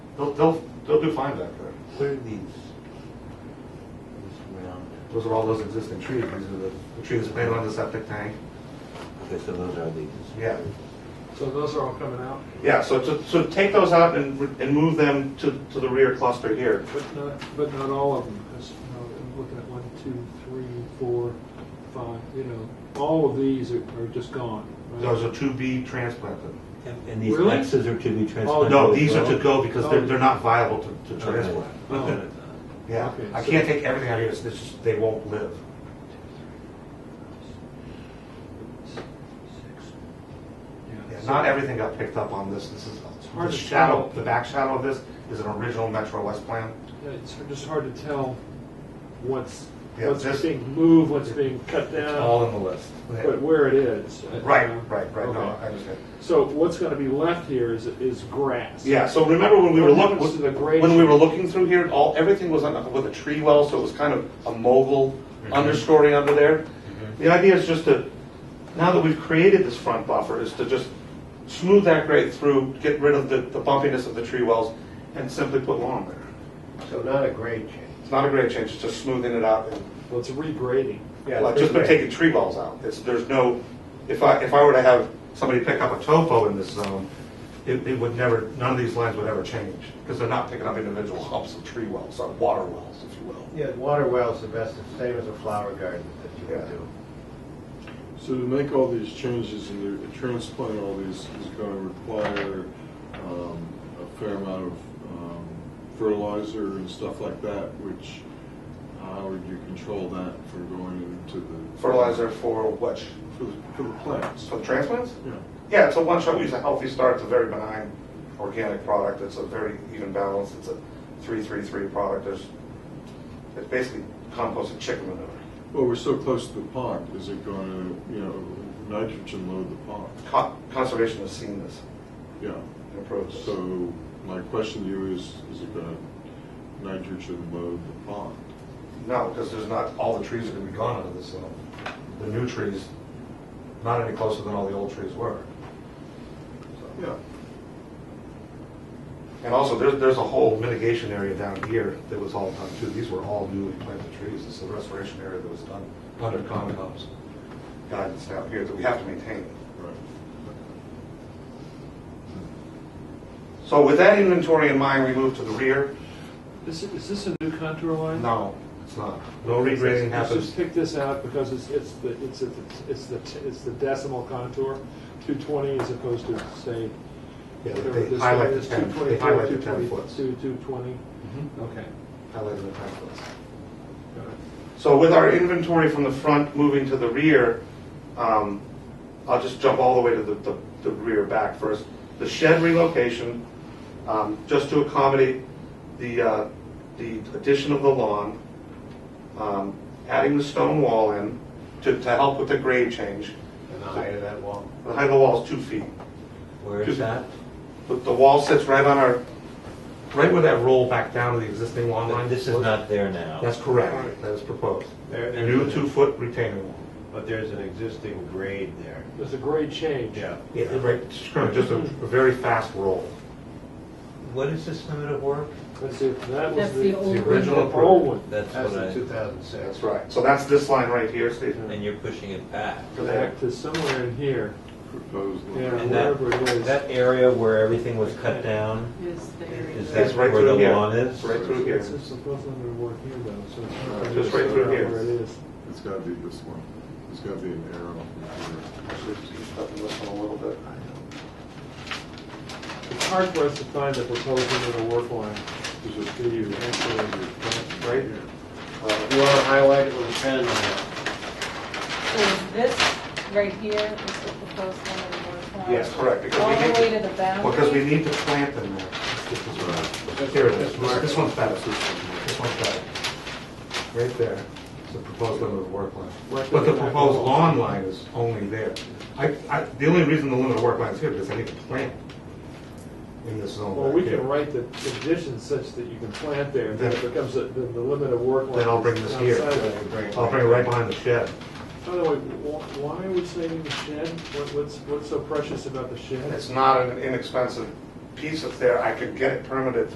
They'll, they'll, they'll do fine back there. What are these? These round, Those are all those existing trees, these are the, the trees planted on the septic tank. okay, so those are these. Yeah. So those are all coming out, Yeah, so, to- so take those out and, re- and move them to, to the rear cluster here. but not, but not all of them. That's, you know, I'm looking at one, two, three, four, five, you know, all of these are, are just gone. right? Those are to be transplanted. And- And these Really? X's are to be transplanted? Oh, No, as these are well? to go because they're, they're not viable to, to Okay. transplant. Oh. Yeah, Okay, I so- can't take everything out of here, it's, it's just, they won't live. Yeah, so- Not everything got picked up on this, this is, hard the to shadow, tell. the back shadow of this is an original Metro West plan. yeah, It's just hard to tell what's, Yeah, what's this- being moved, what's being cut down, in the list. but where it is. uh, Right, you know? right, right, no, Okay. I understand. So what's gonna be left here is, is grass. Yeah, so remember when we were What happens to the looking, grade? when we were looking through here, all, everything was on- with a tree well, so it was kind of a mogul Mm-hmm. understory under there. The idea is just to, now that we've created this front buffer, is to just smooth that grade through, get rid of the, the bumpiness of the tree wells, and simply put lawn there. So not a grade change. It's not a grade change, it's just smoothing it out and Well, it's regrading. Well, I've just been taking tree balls out. It's, there's no, if I, if I were to have somebody pick up a topo in this zone, it, it would never, none of these lines would ever change, because they're not picking up individual humps of tree wells, or water wells, if you will. Yeah, water well's the best, the same as a flower garden that you Yeah. can do. So to make all these changes and to transplant all these is going to require um, a fair amount of um, fertilizer and stuff like that, which, how would you control that for going into the? Fertilizer for what, For the, for the plants. for the transplants? Yeah. Yeah, it's a one shot, we use a healthy start, it's a very benign organic product, it's a very even balance, it's a three-three-three product, there's, it's basically composted chicken manure. Well, we're so close to the pond, is it going to, you know, nitrogen load the pond? Con- Conservation has seen this, Yeah. and approved this. So my question to you is, is it going to nitrogen load the pond? No, because there's not, all the trees are gonna be gone out of this zone. The new trees, not any closer than all the old trees were. So- Yeah. And also, there's, there's a whole mitigation area down here that was all done too. These were all newly planted trees. This is the restoration area that was done under Concom's guidance down here that we have to maintain. Right. So with that inventory in mind, we move to the rear. Is, is this a new contour line? No, it's not. No regrading Let's happens. just pick this out because it's, it's the, it's, at the- it's the, it's the decimal contour, two twenty as opposed to say. Yeah, whatever they this highlight one the is, 10 they 224, highlight the 10 foots. 222, 220. Mm-hmm. okay. Highlighted in the templates. got it. So with our inventory from the front moving to the rear, um, I'll just jump all the way to the, the, the rear back first. The shed relocation, um, just to accommodate the, uh, the addition of the lawn, um, adding the stone wall in to, to help with the grade change. And the height of that wall. The height of the wall is two feet. Where is Just- that? But the wall sits right on our, right where that roll back down to the existing lawn line. This is not there now. That's correct. That is proposed. There- A new two-foot retaining wall. But there's an existing grade there. There's a grade change. Yeah, right, just kind of just a a very fast roll. What is this limit of work? Let's see, that was That's the. the old the original- one. The old one. That's That's what in I, 2006. That's right. So that's this line right here, Steve. and you're pushing it back. Back to somewhere in here, Proposed. yeah, And that, wherever it is. that area where everything was cut down, Is the area. is It's that right where through the here. lawn is? Right through here. It's just supposed to work here though, so. it's not Just right through here. Where it is. It's gotta be this one. It's gotta be an arrow. Up this one a little bit. It's hard for us to find the proposed limit of work line. There's a Do you actually- Right? Uh, You want to highlight it with a pen? So is this right here is the proposed limit of work line? Yes, correct, because All we the way need, to the boundary? because we need to plant in there. This is right. Here it is. This- This one's better. This one's better. Right there. It's the proposed limit of work line. Right. But the proposed lawn line is only there. I, I, the only reason the limit of work line is here is because I need to plant in this zone Well, back we here. can write the conditions such that you can plant there, and then it Then- becomes a- then the limit of work. line Then I'll bring this here. outside of it. I'll bring it right behind the shed. By the way, wh- why are we saving the shed? What- What's, what's so precious about the shed? It's not an inexpensive piece of there. I could get it permitted